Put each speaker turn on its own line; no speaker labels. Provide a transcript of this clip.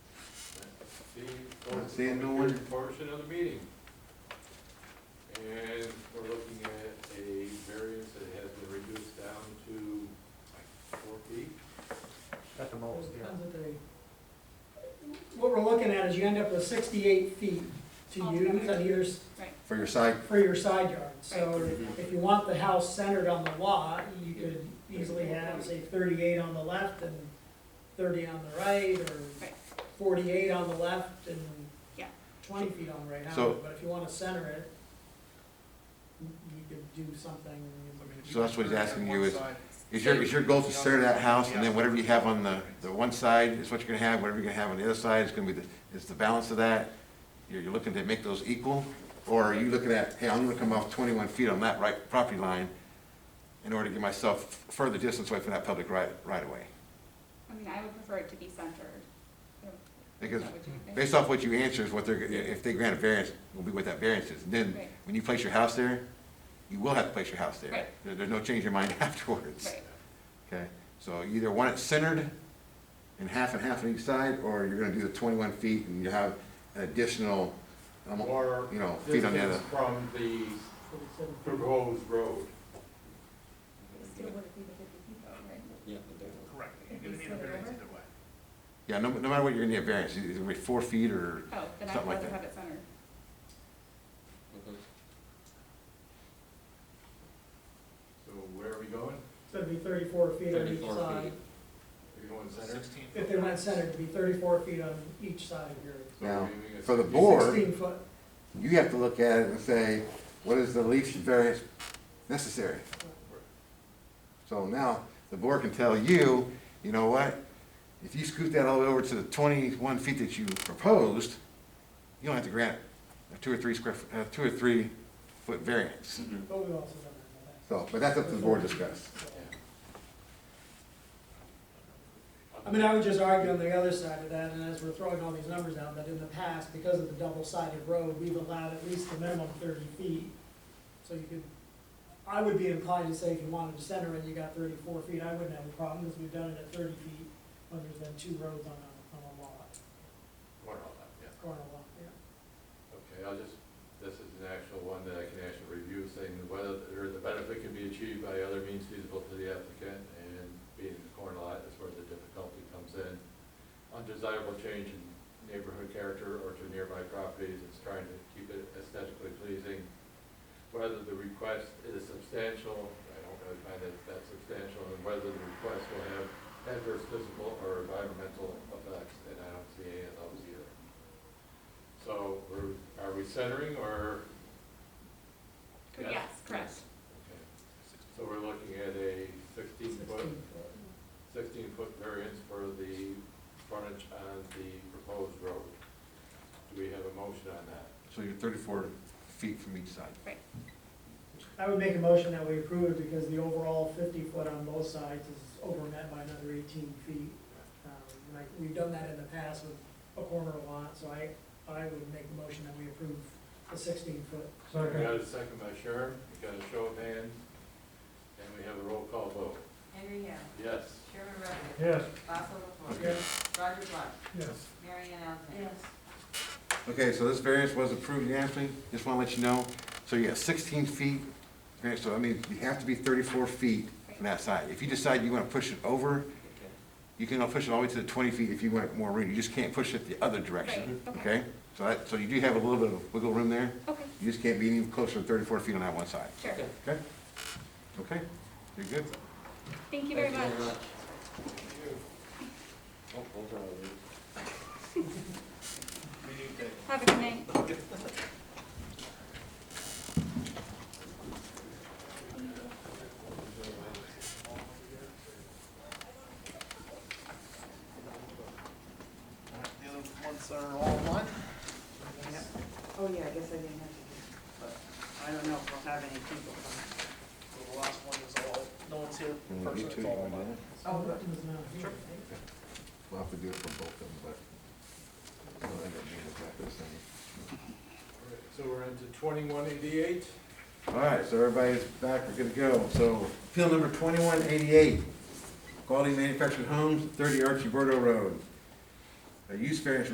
the
Not seeing no
public hearing
one.
portion of the meeting. And we're looking at a variance that has been reduced down to like four feet.
At the most, yeah.
Depends what they- What we're looking at is you end up with sixty-eight feet to
Altogether.
use on either, s-
for your side,
for your side yard. So if you want the house centered on the lot, you could easily have, say, thirty-eight on the left and thirty on the right, or
Right.
forty-eight on the left and
Yeah.
twenty feet on the right. I don't
So-
know, But if you wanna center it, you could do something.
So that's what he's asking you is- is your, is your goal to center that house, and then whatever you have on the, the one side is what you're gonna have, whatever you're gonna have on the other side is gonna be the, is the balance of that? You're, you're looking to make those equal, or are you looking at, hey, I'm gonna come off twenty-one feet on that right property line in order to give myself further distance away from that public right, right away?
I mean, I would prefer it to be centered.
Because
Is that what you think?
based off what you answer is what they're, if they grant a variance, will be what that variance is. And Then,
Right.
when you place your house there, you will have to place your house there.
Right.
There- There's no change in your mind afterwards.
Right,
Okay, so you either want it centered in half and half on each side, or you're gonna do the twenty-one feet and you have an additional, um,
Or
you know, feet on the
distance
other.
from the proposed road.
It still wouldn't be the fifty feet though, right?
Yeah.
Correct,
You're gonna need a variance either
way.
Yeah, no, no matter what, you're gonna need a variance, it's gonna be four feet or,
Oh, then I'd
Something like
rather
that.
have it centered.
So where are we going?
So it'd be thirty-four feet on each
34
side.
feet.
Are you going center?
Sixteen.
If they went centered, it'd be thirty-four feet on each side of your
So
Now,
we're leaving it
for the
60.
board- Or-
sixteen foot.
you have to look at it and say, what is the least variance necessary? So now, the board can tell you, you know what, if you scoot that all the way over to the twenty-one feet that you proposed, you don't have to grant a two or three square, f- uh, two or three foot variance.
But we also don't
So, but that's up to the board to discuss.
have that. I mean, I would just argue on the other side of that, and as we're throwing all these numbers out, that in the past, because of the double-sided road, we've allowed at least the minimum thirty feet. So you could, I would be inclined to say if you wanted to center it, you got thirty-four feet, I wouldn't have a problem, because we've done it at thirty feet when there's been two roads on a, on a lot,
What all that, yeah.
corner lot, yeah.
Okay, I'll just, this is an actual one that I can actually review, saying whether, or the benefit can be achieved by other means feasible to the applicant, and being in the corner lot is where the difficulty comes in. Undesirable change in neighborhood character or to nearby properties, it's trying to keep it aesthetically pleasing. Whether the request is substantial, I don't really find that that substantial, and whether the request will have adverse physical or environmental effects, and I don't see any of those either. So we're, are we centering or?
Cor- Yes, correct.
Okay. So we're looking at a sixteen foot,
Sixteen foot.
sixteen foot variance for the frontage on the proposed road. Do we have a motion on that?
So you're thirty-four feet from each side.
I would make a motion that we approve it because the overall fifty foot on both sides is overmet by another eighteen feet. Um, Like, we've done that in the past with a corner lot, so I, I would make the motion that we approve the sixteen foot.
We got a second by Sharon, we got a show of hands, and we have a roll call vote.
Henry Young,
Yes,
Sherman Rutherford,
Yes.
Fossil LaFour,
Yeah.
Roger Black,
Yes.
Mary Ann Alton.
Okay, so this variance was approved unanimously, just wanna let you know. So you got sixteen feet, okay, so I mean, you have to be thirty-four feet from that side. If you decide you wanna push it over, you can push it all the way to the twenty feet if you want more room. You just can't push it the other direction,
Right, okay.
okay? So that, so you do have a little bit of wiggle room there.
Okay,
You just can't be any closer than thirty-four feet on that one side,
sure.
Okay.
okay? Okay, you're good?
Thank you very much.
Oh, those are all yours.
Have a good night.
The other ones are all one,
Oh, yeah, I guess I didn't have
but I don't know if we'll have any people. So The last one is all, no one's here,
And you
person,
two,
it's
you
all
wanna do
one.
that?
Oh, good.
It's not here,
Sure.
right?
We'll have to do it for both of them, but. I don't think it'll be exactly the same.
so we're into twenty-one eighty-eight?
All right, so everybody's back, we're good to go. So appeal number twenty-one eighty-eight, Quality Manufactured Homes, thirty Archie Bordeaux Road. A use variance